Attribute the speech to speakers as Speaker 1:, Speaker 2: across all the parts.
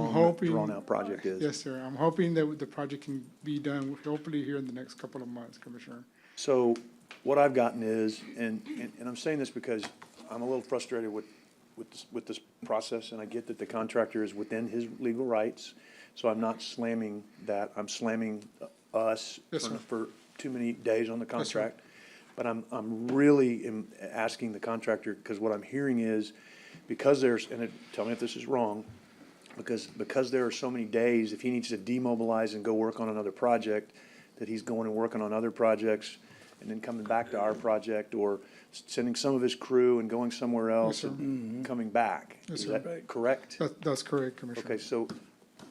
Speaker 1: hoping.
Speaker 2: drawn-out project is.
Speaker 1: Yes, sir. I'm hoping that the project can be done hopefully here in the next couple of months, Commissioner.
Speaker 2: So what I've gotten is, and, and- and I'm saying this because I'm a little frustrated with, with, this- with this process, and I get that the contractor is within his legal rights, so I'm not slamming that, I'm slamming us
Speaker 1: Yes, sir.
Speaker 2: for for too many days on the
Speaker 1: That's right.
Speaker 2: contract. But I'm, I'm really am asking the contractor, because what I'm hearing is, because there's, and it- tell me if this is wrong, because, because there are so many days, if he needs to demobilize and go work on another project, that he's going and working on other projects and then coming back to our project or s- sending some of his crew and going somewhere else
Speaker 1: sir. Mm-hmm.
Speaker 2: and coming back.
Speaker 1: Yes,
Speaker 2: Is
Speaker 1: sir.
Speaker 2: that correct?
Speaker 1: That, that's correct, Commissioner.
Speaker 2: Okay, so,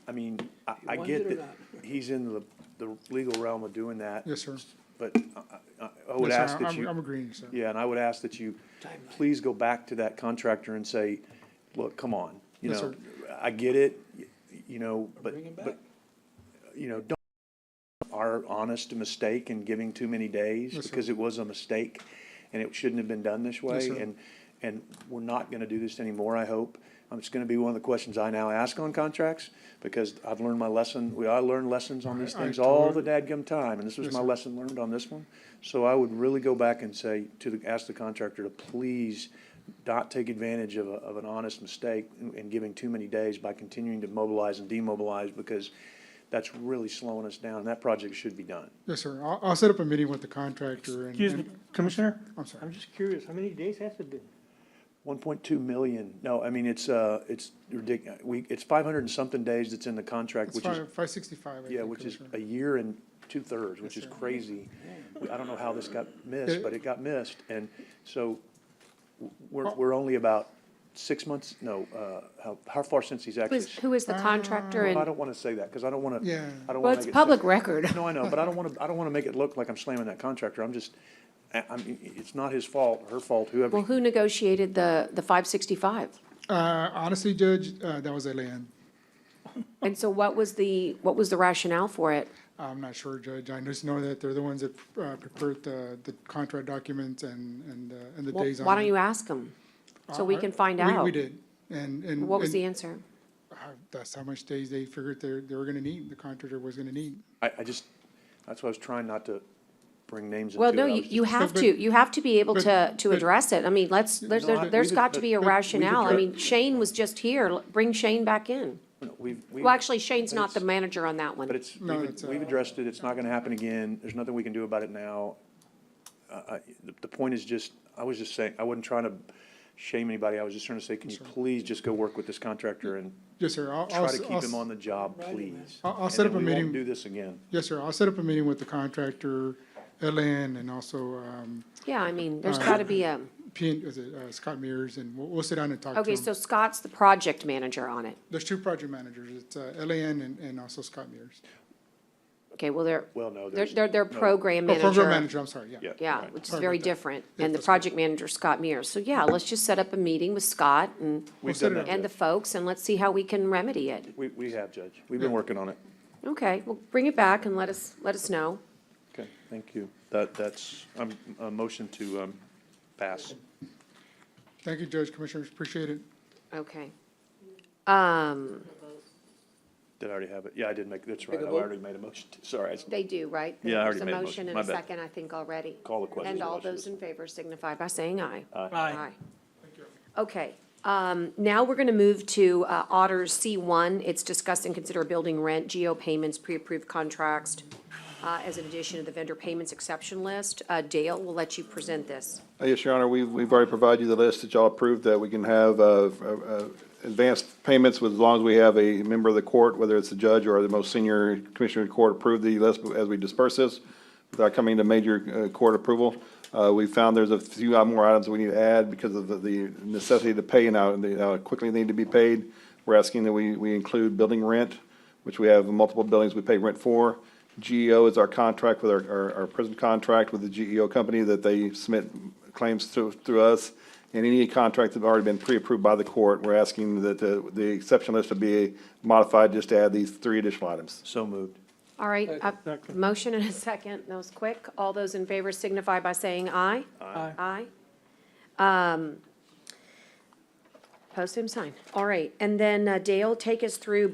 Speaker 2: I mean, I, I
Speaker 3: want
Speaker 2: get
Speaker 3: it or
Speaker 2: that he's in the, the legal realm of doing that.
Speaker 1: Yes, sir.
Speaker 2: But I- I, I would
Speaker 1: Yes, sir.
Speaker 2: ask that
Speaker 1: I'm- I'm
Speaker 2: you,
Speaker 1: agreeing, sir.
Speaker 2: yeah, and I would ask that you,
Speaker 3: Timeline.
Speaker 2: please go back to that contractor and say, look, come on, you
Speaker 1: Yes,
Speaker 2: know, I get it, y- you know, but,
Speaker 3: Bring him
Speaker 2: but,
Speaker 3: back.
Speaker 2: you know, don't our honest mistake in giving too many days,
Speaker 1: Yes, sir.
Speaker 2: because it was a mistake, and it shouldn't have been done this way,
Speaker 1: sir.
Speaker 2: and, and we're not gonna do this anymore, I hope. Um, it's gonna be one of the questions I now ask on contracts, because I've learned my lesson, we, I learn lessons on these
Speaker 1: I- I
Speaker 2: things all the
Speaker 1: totally-
Speaker 2: dadgum time, and this was
Speaker 1: Yes,
Speaker 2: my
Speaker 1: sir.
Speaker 2: lesson learned on this one. So I would really go back and say to the, ask the contractor to please not take advantage of a, of an honest mistake in, in giving too many days by continuing to mobilize and demobilize, because that's really slowing us down, and that project should be done.
Speaker 1: Yes, sir. I'll, I'll set up a meeting with the contractor and.
Speaker 4: Excuse me,
Speaker 1: and-
Speaker 4: Commissioner,
Speaker 1: I'm sorry.
Speaker 4: I'm just curious, how many days has it been?
Speaker 2: One point two million, no, I mean, it's, uh, it's ridic, we, it's five hundred and something days that's in the contract,
Speaker 1: It's
Speaker 2: which is,
Speaker 1: five, five sixty-five, I
Speaker 2: yeah,
Speaker 1: think,
Speaker 2: which is
Speaker 1: Commissioner.
Speaker 2: a year and two-thirds, which is
Speaker 1: sir.
Speaker 2: crazy. I don't know how this got missed, but it got missed, and so w- we're, we're only about six months, no, uh, how, how far since he's
Speaker 5: Who
Speaker 2: actually?
Speaker 5: is, who is the contractor
Speaker 2: Well, I
Speaker 5: and,
Speaker 2: don't wanna say that, because I don't wanna,
Speaker 1: Yeah.
Speaker 2: I don't wanna
Speaker 5: well,
Speaker 2: make
Speaker 5: it's
Speaker 2: it
Speaker 5: public
Speaker 2: sound-
Speaker 5: record.
Speaker 2: no, I know, but I don't want to, I don't want to make it look like I'm slamming that contractor. I'm just, I, I mean, it's not his fault, her fault,
Speaker 5: Well,
Speaker 2: whoever.
Speaker 5: who negotiated the, the five sixty-five?
Speaker 1: Uh, honestly, Judge, uh, that was Alan.
Speaker 5: And so what was the, what was the rationale for it?
Speaker 1: I'm not sure, Judge. I just know that they're the ones that, uh, prepared the, the contract documents and, and, uh, and the
Speaker 5: Well,
Speaker 1: days on.
Speaker 5: Why don't
Speaker 1: it.
Speaker 5: you ask them? So we
Speaker 1: I-
Speaker 5: can find
Speaker 1: we-
Speaker 5: out.
Speaker 1: We did, and, and.
Speaker 5: What was
Speaker 1: and,
Speaker 5: the answer?
Speaker 1: uh, That's how much days they figured they, they were gonna need, the contractor was gonna need.
Speaker 2: I, I just, that's why I was trying not to bring names into it.
Speaker 5: Well, no,
Speaker 2: I
Speaker 5: you,
Speaker 2: was-
Speaker 5: you have
Speaker 1: but-
Speaker 5: to, you have to be able
Speaker 1: but-
Speaker 5: to, to
Speaker 1: but-
Speaker 5: address it. I mean, let's, there's,
Speaker 2: No, I-
Speaker 5: there's
Speaker 2: we've
Speaker 5: got to be a
Speaker 2: addre- but- but we've
Speaker 5: rationale. I
Speaker 2: addre-
Speaker 5: mean, Shane was just here. L- Bring Shane back in.
Speaker 2: no, We've, we've.
Speaker 5: Well, actually, Shane's not the
Speaker 2: it's-
Speaker 5: manager on
Speaker 2: But
Speaker 5: that one.
Speaker 2: it's,
Speaker 1: No,
Speaker 2: we've,
Speaker 1: it's, uh,
Speaker 2: we've addressed it. It's not going to happen again. There's nothing we can do about it now. Uh, I, the, the point is just, I was just saying, I wasn't trying to shame anybody. I was just trying to say, can you please just go work with this contractor and
Speaker 1: Yes, sir, I'll, I'll.
Speaker 2: try to
Speaker 1: I'll
Speaker 2: keep
Speaker 1: s-
Speaker 2: him on the job,
Speaker 3: Writing
Speaker 2: please?
Speaker 1: I'll- I'll
Speaker 2: And
Speaker 1: set
Speaker 2: then
Speaker 1: up a
Speaker 2: we won't
Speaker 1: meeting-
Speaker 2: Do this again.
Speaker 1: Yes, sir, I'll set up a meeting with the contractor, Alan, and also, um,
Speaker 5: Yeah, I mean, there's got to be a,
Speaker 1: P, and- is it, uh, Scott Mears, and we'll, we'll sit down and talk to
Speaker 5: okay,
Speaker 1: him.
Speaker 5: so Scott's the project manager on it.
Speaker 1: There's two project managers, it's, uh, Alan and, and also Scott Mears.
Speaker 5: Okay, well, they're,
Speaker 2: Well, no,
Speaker 5: they're,
Speaker 2: there's.
Speaker 5: they're, they're
Speaker 2: no.
Speaker 5: program
Speaker 1: Oh,
Speaker 5: manager.
Speaker 1: program manager, I'm sorry, yeah.
Speaker 2: Yeah.
Speaker 5: Yeah,
Speaker 2: right.
Speaker 5: which is
Speaker 1: Sorry
Speaker 5: very
Speaker 1: about that.
Speaker 5: different,
Speaker 1: Yeah,
Speaker 5: and the
Speaker 1: that's correct.
Speaker 5: project manager, Scott Mears. So yeah, let's just set up a meeting with Scott and,
Speaker 2: We've
Speaker 1: set
Speaker 2: done
Speaker 1: it
Speaker 2: that.
Speaker 1: up.
Speaker 5: and the folks, and let's see how we can remedy it.
Speaker 2: We, we have, Judge. We've been working on it.
Speaker 5: Okay, well, bring it back and let us, let us know.
Speaker 2: Okay, thank you. That, that's, um, a motion to, um, pass.
Speaker 1: Thank you, Judge, Commissioners, appreciate it.
Speaker 5: Okay. Um,
Speaker 2: Did I already have it? Yeah, I did make, that's right. I
Speaker 3: Take a vote.
Speaker 2: already made a motion. to- Sorry, I s-
Speaker 5: they do, right?
Speaker 2: Yeah, I already
Speaker 5: There's
Speaker 2: made a motion.
Speaker 5: motion and
Speaker 2: My
Speaker 5: a
Speaker 2: bad.
Speaker 5: second, I think, already.
Speaker 2: Call the question.
Speaker 5: And all those in favor signify by saying aye.
Speaker 4: Aye.
Speaker 5: Okay, um, now we're gonna move to, uh, Otter C one. It's discuss and consider building rent, geo payments, pre-approved contracts, uh, as an addition to the vendor payments exception list. Uh, Dale, we'll let you present this.
Speaker 6: Uh, Yes, Your Honor, we've, we've already provided you the list that y'all approved, that we can have, uh, uh, uh, advanced payments with, as long as we have a member of the court, whether it's the judge or the most senior commissioner in court, approve the list as we disperse this, without coming to major, uh, court approval. Uh, we found there's a few more items we need to add because of the, the necessity to pay and how, and how quickly they need to be paid. We're asking that we, we include building rent, which we have multiple buildings we pay rent for. GEO is our contract with our- our, our prison contract with the GEO company that they submit claims through, through us. And any contract that have already been pre-approved by the court, we're asking that the, the exception list to be modified just to add these three additional items.
Speaker 2: So moved.
Speaker 5: All right, uh, motion and a second, that was quick. All those in favor signify by saying aye.
Speaker 4: Aye.
Speaker 5: Aye. Um, Post same sign. All right, and then uh, Dale, take us through